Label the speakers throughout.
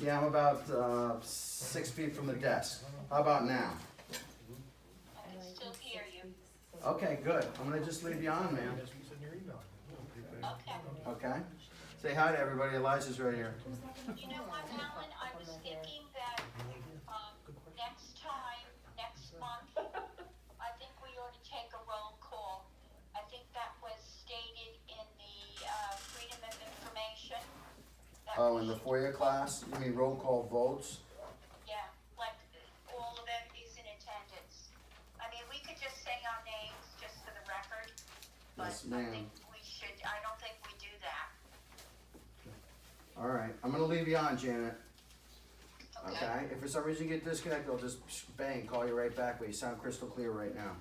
Speaker 1: Yeah, I'm about uh, six feet from the desk. How about now?
Speaker 2: I still hear you.
Speaker 1: Okay, good. I'm gonna just leave you on, man.
Speaker 2: Okay.
Speaker 1: Okay? Say hi to everybody. Elijah's right here.
Speaker 2: You know what, Alan, I was thinking that, um, next time, next month, I think we ought to take a roll call. I think that was stated in the, uh, Freedom of Information. that
Speaker 1: Oh,
Speaker 2: we
Speaker 1: in the
Speaker 2: should-
Speaker 1: foyer class, you mean roll call votes?
Speaker 2: Yeah, like, all of them is in attendance. I mean, we could just say our names, just for the record.
Speaker 1: Yes,
Speaker 2: But I
Speaker 1: ma'am.
Speaker 2: think we should, I don't think we do that.
Speaker 1: All right, I'm gonna leave you on, Janet. Okay? If for some reason you get disconnected, I'll just bang, call you right back, but you sound crystal clear right now.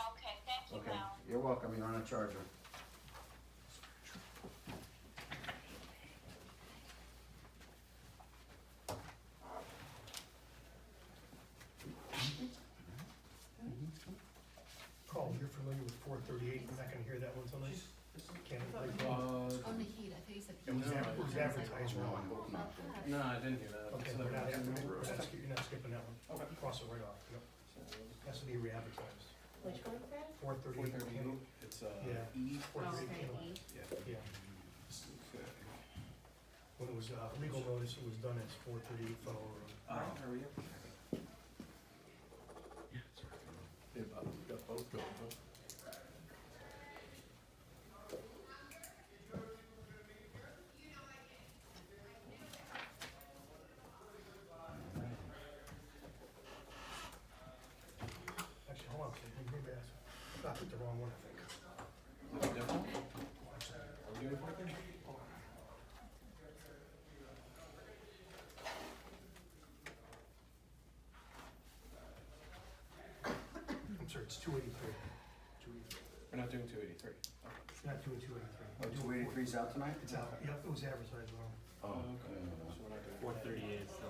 Speaker 2: Okay, thank you,
Speaker 1: Okay,
Speaker 2: Alan.
Speaker 1: you're welcome, you're on a charger.
Speaker 3: Carl, you're familiar with four thirty-eight, you're not gonna hear that one tonight? Can't, like,
Speaker 4: Uh,
Speaker 5: On the heat, I thought you said heat.
Speaker 3: it was
Speaker 4: no,
Speaker 3: ad- it
Speaker 4: I
Speaker 3: was
Speaker 4: didn't.
Speaker 3: advertised
Speaker 1: No,
Speaker 3: wrong.
Speaker 1: I hope not.
Speaker 4: no, I didn't hear that.
Speaker 3: Okay,
Speaker 4: So
Speaker 3: we're not,
Speaker 4: that-
Speaker 3: we're not skip- you're not skipping that one.
Speaker 4: Okay.
Speaker 3: Cross it right off, yep. Has to be re-advertised.
Speaker 6: Which one's that?
Speaker 3: Four
Speaker 4: Four
Speaker 3: thirty-eight
Speaker 4: thirty-eight, it's, uh,
Speaker 3: Yeah.
Speaker 4: E.
Speaker 3: four thirty-eight
Speaker 6: Okay.
Speaker 3: Yeah,
Speaker 4: Okay.
Speaker 3: when it was, uh, legal notice, it was done as four thirty-eight Fennel Road.
Speaker 4: Uh, are we up?
Speaker 3: Actually, hold on, a second, maybe I, I picked the wrong one, I think.
Speaker 4: Is it different? Are we doing four thirty?
Speaker 3: I'm sorry, it's two eighty-three. Two eighty-three.
Speaker 4: We're not doing two eighty-three.
Speaker 3: It's not doing two eighty-three.
Speaker 1: Oh, two eighty-three's out tonight?
Speaker 3: It's out, yep, it was advertised wrong.
Speaker 1: Oh,
Speaker 4: Okay,
Speaker 1: yeah.
Speaker 4: so we're not doing.
Speaker 7: Four thirty-eight, so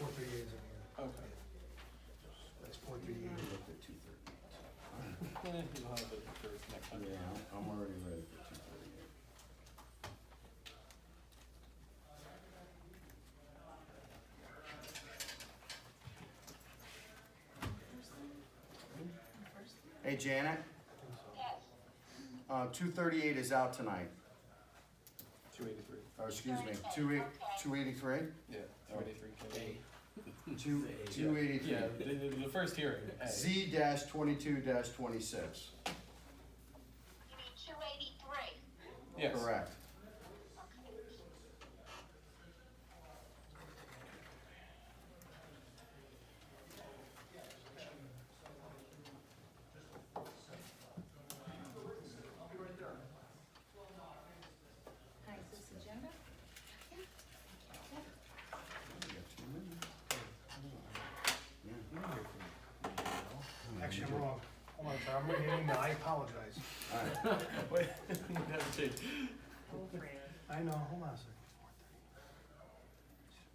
Speaker 3: Four thirty-eight is in here.
Speaker 4: Okay.
Speaker 3: That's four thirty-eight.
Speaker 1: Look
Speaker 4: Mm-hmm.
Speaker 1: at 2:30.
Speaker 4: Yeah, we'll have it for next time.
Speaker 1: Yeah, I'm already ready for two thirty. Hey Janet,
Speaker 2: Yes.
Speaker 1: uh, two thirty-eight is out tonight,
Speaker 4: Two eighty-three.
Speaker 1: or excuse me, two eight, two eighty-three?
Speaker 4: Yeah, two eighty-three. K.
Speaker 1: Two, two eighty-three.
Speaker 4: Yeah, the, the, the first hearing, A.
Speaker 1: Z dash twenty-two dash twenty-six,
Speaker 2: You mean two eighty-three?
Speaker 4: Yes.
Speaker 1: correct.
Speaker 2: Okay.
Speaker 6: Hi, is this agenda?
Speaker 3: Actually, I'm wrong. Hold on, sorry, I'm reading an email, I apologize.
Speaker 4: Wait, never change.
Speaker 6: Oh, Fran.
Speaker 3: I know, hold on a second.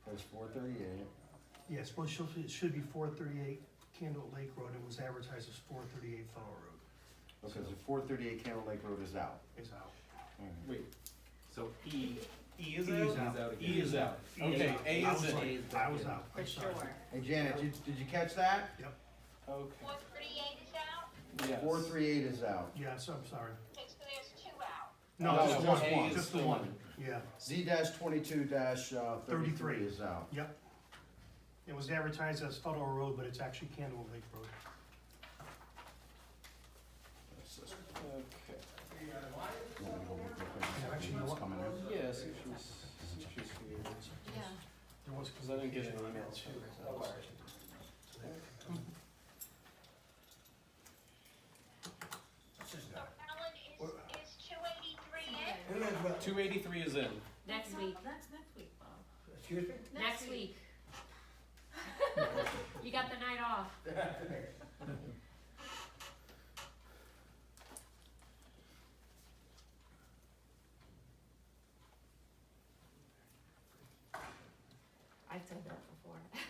Speaker 1: That's four thirty-eight.
Speaker 3: Yeah, I suppose she'll- it should be four thirty-eight Candle Lake Road, it was advertised as four thirty-eight Fellow Road.
Speaker 1: Okay, so four thirty-eight Candle Lake Road is out.
Speaker 3: It's out.
Speaker 4: Wait,
Speaker 7: so E, E is
Speaker 3: E
Speaker 7: out?
Speaker 3: is out.
Speaker 4: E is out. Okay, A
Speaker 3: I
Speaker 4: is
Speaker 3: was
Speaker 4: in.
Speaker 3: right.
Speaker 7: is
Speaker 3: I
Speaker 7: back
Speaker 3: was
Speaker 7: in.
Speaker 3: out,
Speaker 6: For
Speaker 3: I'm sorry.
Speaker 6: sure.
Speaker 1: Hey Janet, did, did you catch that?
Speaker 3: Yep,
Speaker 4: Okay,
Speaker 2: Four thirty-eight is out,
Speaker 4: yes.
Speaker 1: Four three eight is out.
Speaker 3: yeah, so I'm sorry.
Speaker 2: Okay, so there's two out.
Speaker 3: No,
Speaker 1: No,
Speaker 3: just
Speaker 1: no, A
Speaker 3: one,
Speaker 1: is
Speaker 3: just the
Speaker 4: the
Speaker 3: one,
Speaker 4: one.
Speaker 3: yeah,
Speaker 1: Z dash twenty-two dash uh, thirty-three
Speaker 3: 33.
Speaker 1: is out.
Speaker 3: yep. It was advertised as Fellow Road, but it's actually Candle Lake Road.
Speaker 4: Okay.
Speaker 3: actually, you know what?
Speaker 1: Coming in.
Speaker 4: Yeah, see if she's, see if she's here.
Speaker 5: Yeah,
Speaker 3: There was.
Speaker 4: Because I didn't get an email.
Speaker 3: too.
Speaker 2: So Alan, is, is two eighty-three in?
Speaker 5: okay.
Speaker 4: Two eighty-three is in.
Speaker 6: Next week,
Speaker 5: That's next week, Bob.
Speaker 3: Excuse me?
Speaker 5: Next week. You got the night off. I've done that before.